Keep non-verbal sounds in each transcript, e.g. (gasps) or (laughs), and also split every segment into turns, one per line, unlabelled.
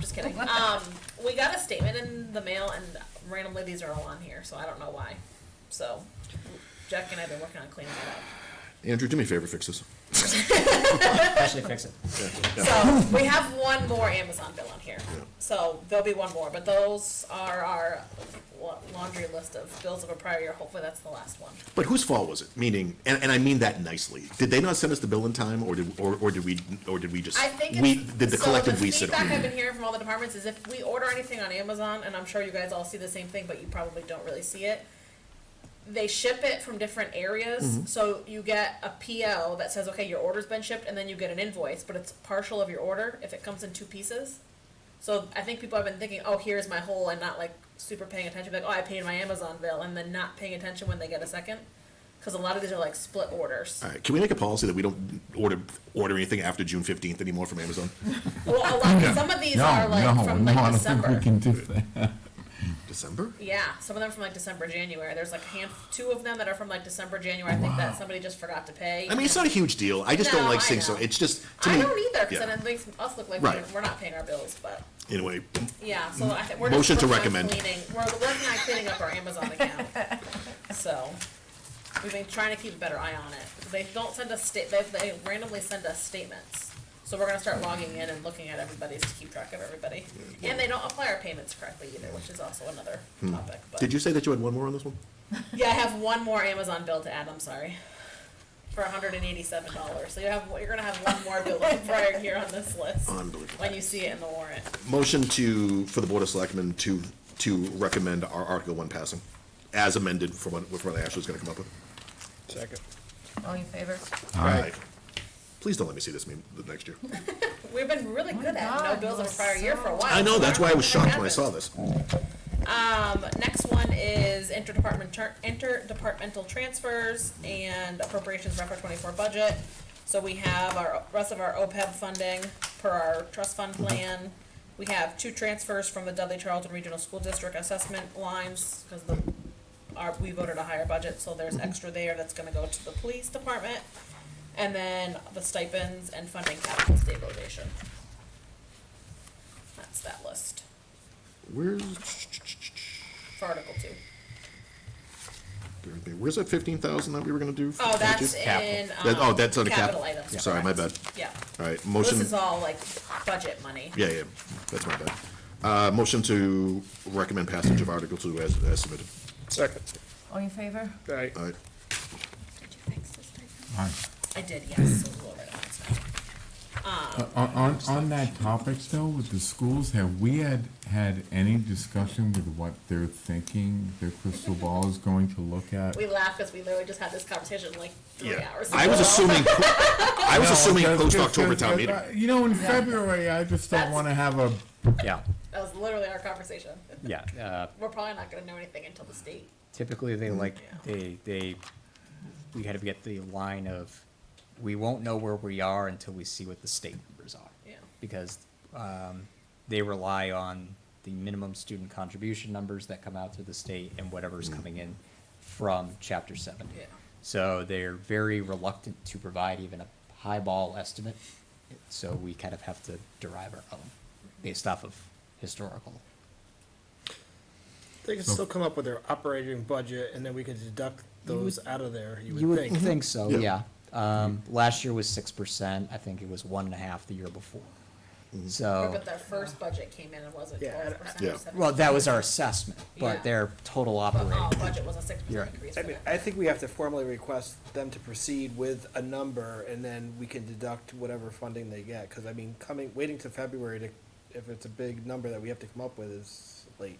just kidding.
What the-
Um, we got a statement in the mail, and randomly these are all on here, so I don't know why. So Jack and I have been working on cleaning it up.
Andrew, do me a favor, fix this.
Actually fix it.
So we have one more Amazon bill on here. So there'll be one more, but those are our la- laundry list of bills of a prior year. Hopefully that's the last one.
But whose fault was it? Meaning, and, and I mean that nicely. Did they not send us the bill in time, or did or, or did we or did we just
I think it's,
we did the
so
collective
the
we sit?
feedback I've been hearing from all the departments is if we order anything on Amazon, and I'm sure you guys all see the same thing, but you probably don't really see it. They ship it from different areas, so you get a PO that says, "Okay, your order's been shipped," and then you get an invoice, but it's partial of your order if it comes in two pieces. So I think people have been thinking, "Oh, here's my whole," and not like super paying attention, like, "Oh, I paid my Amazon bill," and then not paying attention when they get a second, because a lot of these are like split orders.
All right, can we make a policy that we don't order order anything after June fifteenth anymore from Amazon?
Well, a lot, some of these are like from like December.
No, no, I don't think we can do that. (laughs)
December?
Yeah, some of them from like December, January. There's like a hand, two of them that are from like December, January. I think that somebody just forgot to pay.
I mean, it's not a huge deal. I just don't
No,
like
I
seeing so.
know.
It's just to
I
me.
don't either because
yeah.
then it makes us look like
Right.
we're, we're not paying our bills. But
Anyway,
yeah, so I think we're
Motion
just
to
working on
recommend.
Cleaning. We're working on cleaning up our Amazon account.
(laughs)
so we've been trying to keep a better eye on it. They don't send us state. They, they randomly send us statements. So we're gonna start logging in and looking at everybody's to keep track of everybody. And they don't apply our payments correctly either, which is also another topic. But.
Hmm. did you say that you had one more on this one?
Yeah, I have one more Amazon bill to add. I'm sorry, for 187 dollars. So you have you're gonna have one more bill prior here on this list
Unbelievable.
when you see it in the warrant.
Motion to for the board of selectmen to to recommend our Article One passing, as amended for what for what Ashley's going to come up with.
Second.
All in favor?
All right.
Please don't let me see this meme the next year.
We've been really good at no
God,
bills of a
you're
prior year for a while.
(laughs) I know, that's why I was shocked when I saw
Happens.
this.
Um, next one is interdepartment tur- interdepartmental transfers and appropriations for FY twenty-four budget. So we have our, rest of our OPEB funding per our trust fund plan. We have two transfers from the Dudley Charlton Regional School District assessment lines, cause the, our, we voted a higher budget, so there's extra there that's gonna go to the police department. And then the stipends and funding capital stabilization. That's that list
Where's,
for Article two.
where's that fifteen thousand that we were gonna do? for
Oh, that's
budget?
in,
That- oh,
um,
that's under cap-
capital items.
I'm sorry, my
correct.
bad.
Yeah,
All right,
Well,
motion,
this is all like budget money.
yeah, yeah, that's my bad. Uh, motion to recommend passage of Article Two as, as submitted.
Second.
All in favor?
Aye.
All right,
All right.
I did, yes, so we'll write it down.
On, Uh, on, on that topic still, with the schools, have we had, had any discussion with what they're thinking their crystal ball is going to look at?
We laugh because we literally just had this conversation like three
yeah.
hours ago.
I was assuming, po- I was
(laughs) No,
assuming
because-
post-October
because-
town meeting.
because, uh, You know, in February, I just don't
That's-
wanna have a,
Yeah,
That was literally our conversation.
yeah. Uh,
(laughs) We're probably not gonna know anything until the state.
typically,
Mm.
they like, they, they, we gotta get the line of, we won't know where we are until we see what the state numbers are.
Yeah.
Because, um, they rely on the minimum student contribution numbers that come out through the state and whatever's coming in from chapter seventy.
Yeah.
So they're very reluctant to provide even a highball estimate, so we kind of have to derive our own based off of historical.
They can still come up with their operating budget, and then we could deduct those out of there, you
You
would think. Mm-hmm.
would think so, yeah. Um, last year was six percent, I think it was one and a half the year before. So,
Mm-hmm.
But their first budget came in and wasn't
Yeah, I-
twelve percent
Oh. yeah.
or seven.
well, that was our assessment,
Yeah. Uh-huh.
but their total
Our
operating,
budget was a six percent
You're right.
increase
I
for
mean,
them.
I think we have to formally request them to proceed with a number, and then we can deduct whatever funding they get, because I mean, coming, waiting to February to, if it's a big number that we have to come up with is late.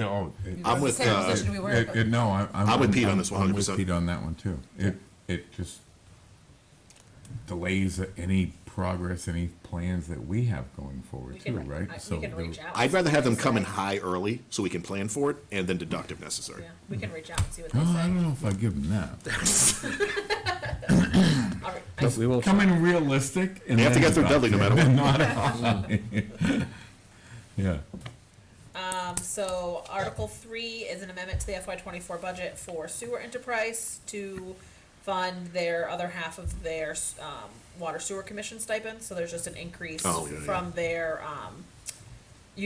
oh, it-
I'm with,
Same
uh,
position we were
It, it,
in.
no, I, I'm.
I'm with Pete on
I'm-
this one,
I'm with
100%.
Pete on that one too. It, it just delays any progress, any plans that we have going
We
forward too,
can,
right?
I-
So
we can
the-
reach out.
I'd
and
rather
see what
have them
they
come in
say.
high early, so we can plan for it, and then deduct if necessary.
Yeah, we can reach out and see what
Oh,
(gasps)
they
I
say.
don't know if I give them that.
All right, I-
but we will,
Come in realistic and
They have to
then
get through Dudley no
deduct
matter
it.
what.
Not (laughs) a- (laughs) Yeah,
So Article three is an amendment to the FY twenty-four budget for sewer enterprise to fund their other half of their, um, water sewer commission stipend, so there's just an increase
Oh, yeah, yeah.
from their, um,